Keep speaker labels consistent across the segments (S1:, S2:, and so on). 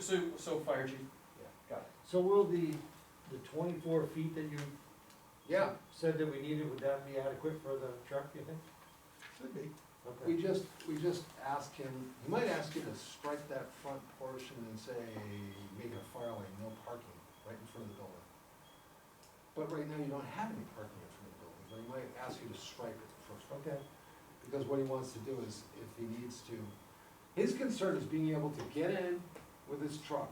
S1: So, so fire chief, got it.
S2: So will the, the twenty-four feet that you
S3: Yeah,
S2: said that we needed, would that be adequate for the truck, you think?
S3: should be. We
S2: Okay.
S3: just, we just ask him, you might ask him to strike that front portion and say, make a fire lane, no parking, right in front of the building. But right now, you don't have any parking in front of the building, but he might ask you to strike it first,
S2: Okay,
S3: because what he wants to do is, if he needs to, his concern is being able to get in with his truck,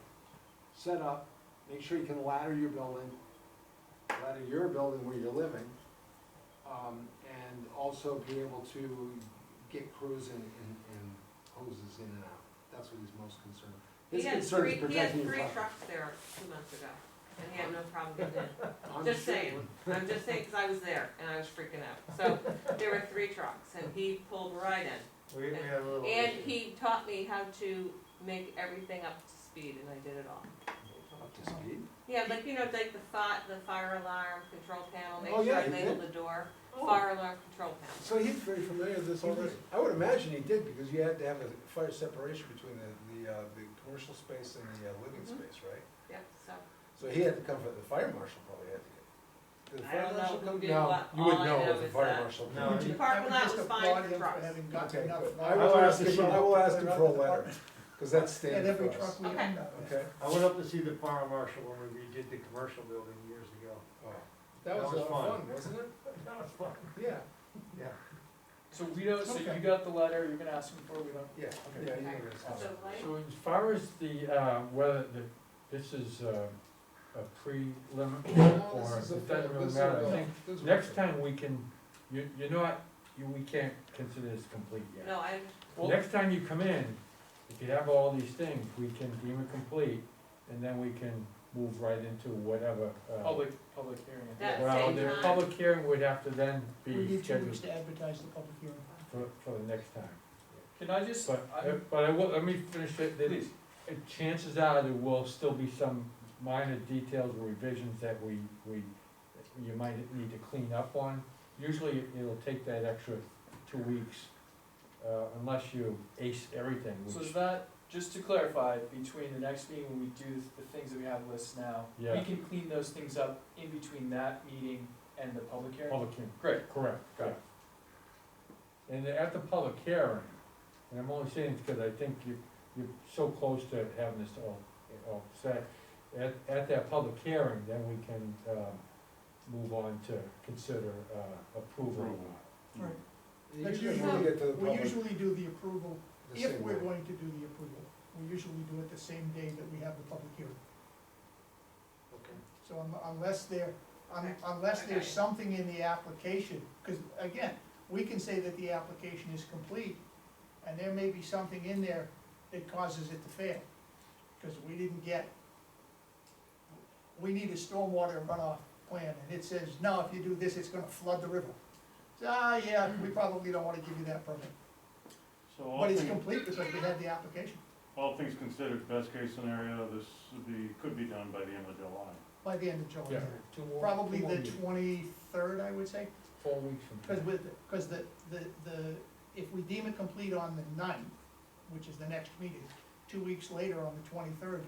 S3: set up, make sure you can ladder your building, ladder your building where you're living, um, and also be able to get crews and, and, and hoses in and out. That's what he's most concerned.
S4: He
S3: His
S4: had
S3: concern
S4: three,
S3: is
S4: he had
S3: protecting your
S4: three
S3: property.
S4: trucks there two months ago, and he had no problem getting in.
S3: I'm
S4: Just
S3: sure-
S4: saying, I'm just saying, cause I was there and I was freaking out. So there were three trucks and he pulled right in.
S2: we, we had a little.
S3: Oh,
S4: And
S2: issue.
S4: he taught me how to make everything up to speed and I did it all.
S3: Up to speed.
S4: Yeah, like, you know, like the fi- the fire alarm control panel,
S3: Oh,
S4: make sure
S3: yeah,
S4: I
S3: he
S4: labeled
S3: did.
S4: the door,
S3: Oh.
S4: fire alarm control panel.
S3: So he's very familiar with this
S5: He
S3: already.
S5: was- I would imagine he did, because you had to have a fire separation between the, the, uh, the commercial space and the, uh, living
S4: Mhm.
S5: space, right?
S4: Yeah, so,
S5: So he had to come from, the fire marshal probably had to get. Did the
S4: I
S5: fire
S4: don't know
S5: marshal
S4: who
S5: come?
S4: did
S5: No,
S4: what.
S5: You wouldn't
S4: All I
S5: know
S4: know
S5: if the
S4: is
S5: fire
S4: that-
S5: marshal.
S2: No,
S5: came.
S2: he-
S4: the parking lot was fine for trucks.
S5: Okay, good. I
S2: fire
S5: will ask
S2: marshal.
S5: him, I will ask him for a letter, cause that's
S6: And
S5: standard
S6: every
S5: for us.
S6: truck we
S4: Okay.
S6: end up with.
S5: Okay?
S2: I went up to see the fire marshal when we redid the commercial building years ago.
S5: Oh.
S2: That
S5: That was a
S2: was
S5: lot
S2: fun.
S5: of fun, wasn't it?
S2: That was fun.
S5: Yeah,
S2: Yeah.
S1: So we don't, so you
S5: Okay.
S1: got the letter, you're gonna ask him for, it, we don't,
S5: yeah,
S1: Okay.
S5: yeah, you
S4: Okay.
S5: know this.
S4: so like,
S7: So as far as the, uh, whether the, this is uh, a pre-limit
S5: No,
S7: or
S5: this is a-
S7: it doesn't
S5: this
S7: really
S5: is
S7: matter,
S5: a-
S7: I think
S5: this is-
S7: next time we can, you, you're not, you, we can't consider this complete yet.
S4: no, I,
S1: well,
S7: Next time you come in, if you have all these things, we can deem it complete and then we can move right into whatever. uh,
S6: Oh.
S1: public, public hearing. I think.
S4: That
S7: Well,
S4: same
S7: the
S4: time.
S7: public hearing would have to then
S6: We
S7: be
S6: need two
S7: scheduled
S6: weeks to advertise the public hearing.
S7: for, for the next time.
S1: Can I just,
S7: But,
S1: I,
S7: but I will, let me finish it, then
S1: please,
S7: Uh, chances are there will still be some minor details or revisions that we, we, you might need to clean up on. Usually it'll take that extra two weeks, uh, unless you ace everything,
S1: so
S7: which,
S1: is that, just to clarify, between the next meeting when we do the things that we have lists now, we
S7: Yeah.
S1: can clean those things up in between that meeting and the public hearing?
S7: public hearing.
S1: Great,
S7: Correct, got it. And at the public hearing, and I'm only saying this because I think you, you're so close to having this all, all set. At, at that public hearing, then we can, um, move on to consider, uh, approval. or not.
S6: Right.
S5: You
S6: That's
S5: usually
S6: usually-
S5: get to the
S6: We
S5: public
S6: usually do the approval,
S5: the
S6: if
S5: same
S6: we're
S5: way.
S6: going to do the approval, we usually do it the same day that we have the public hearing.
S3: Okay.
S6: So un- unless there, un-
S4: Okay.
S6: unless
S4: Okay.
S6: there's something in the application, because again, we can say that the application is complete, and there may be something in there that causes it to fail, because we didn't get, we need a stormwater runoff plan, and it says, no, if you do this, it's gonna flood the river. So, ah, yeah, we probably don't wanna give you that permit,
S8: So all
S6: but it's
S8: things,
S6: complete because we had the application
S8: all things considered, best case scenario, this would be, could be done by the end of July.
S6: by the end of
S7: Yeah,
S6: July.
S7: two more.
S6: Probably
S7: two more
S6: the
S7: meetings.
S6: twenty-third, I would say.
S7: Four weeks from
S6: Because
S7: now.
S6: with, because the, the, the, if we deem it complete on the ninth, which is the next meeting, two weeks later on the twenty-third,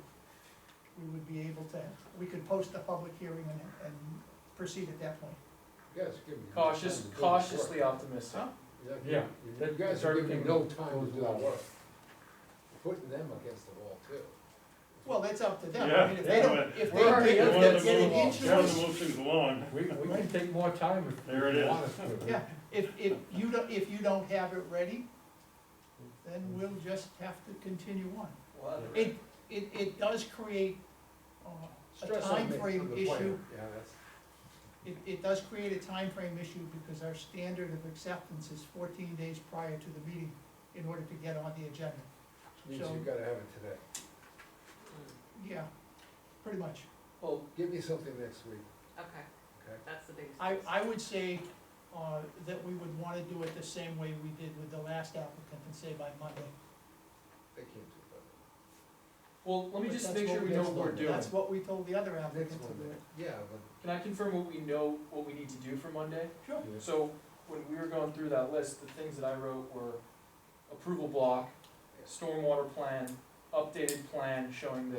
S6: we would be able to, we could post the public hearing and, and proceed at that point.
S3: You guys give me. no time
S1: cautious,
S3: to do this work.
S1: cautiously optimistic.
S3: Yeah,
S7: Yeah,
S3: you- you
S7: that-
S3: guys
S7: that's
S3: are giving me
S7: everything
S3: no
S7: that
S3: time to
S7: goes
S3: do the
S7: along.
S3: work. Putting them against the wall too.
S6: Well, that's up to them. I
S8: Yeah,
S6: mean, if they don't,
S8: yeah,
S6: if they
S8: we're
S6: don't
S8: already
S6: think
S8: wanted
S6: that
S8: to
S6: getting
S8: move on.
S6: into
S8: Trying
S6: this-
S8: to move things along.
S7: We, we can take more time if.
S8: There it
S7: you
S8: is.
S7: want us to.
S6: Yeah, if, if you don't, if you don't have it ready, then we'll just have to continue on.
S1: Well, that-
S6: It, it, it does create, uh, a
S3: Stress on me,
S6: timeframe
S3: on the plan.
S6: issue.
S3: Yeah, that's.
S6: It, it does create a time frame issue because our standard of acceptance is fourteen days prior to the meeting in order to get on the agenda.
S5: Means
S6: So-
S5: you gotta have it today.
S4: Hmm.
S6: Yeah, pretty much.
S1: Well,
S3: Give me something next week,
S4: okay,
S3: okay?
S4: that's the biggest.
S6: I, I would say, uh, that we would wanna do it the same way we did with the last applicant and say by Monday.
S3: They can't do
S1: well, let me
S6: But
S1: just
S6: that's
S1: make
S6: what
S1: sure we
S6: we-
S1: know what we're doing.
S6: That's what we told the other
S3: that. Next
S6: applicant to do.
S3: one, yeah, but
S1: Can I confirm what we know, what we need to do for Monday?
S6: Sure.
S7: Yeah.
S1: So when we were going through that list, the things that I wrote were approval block, stormwater plan, updated plan showing the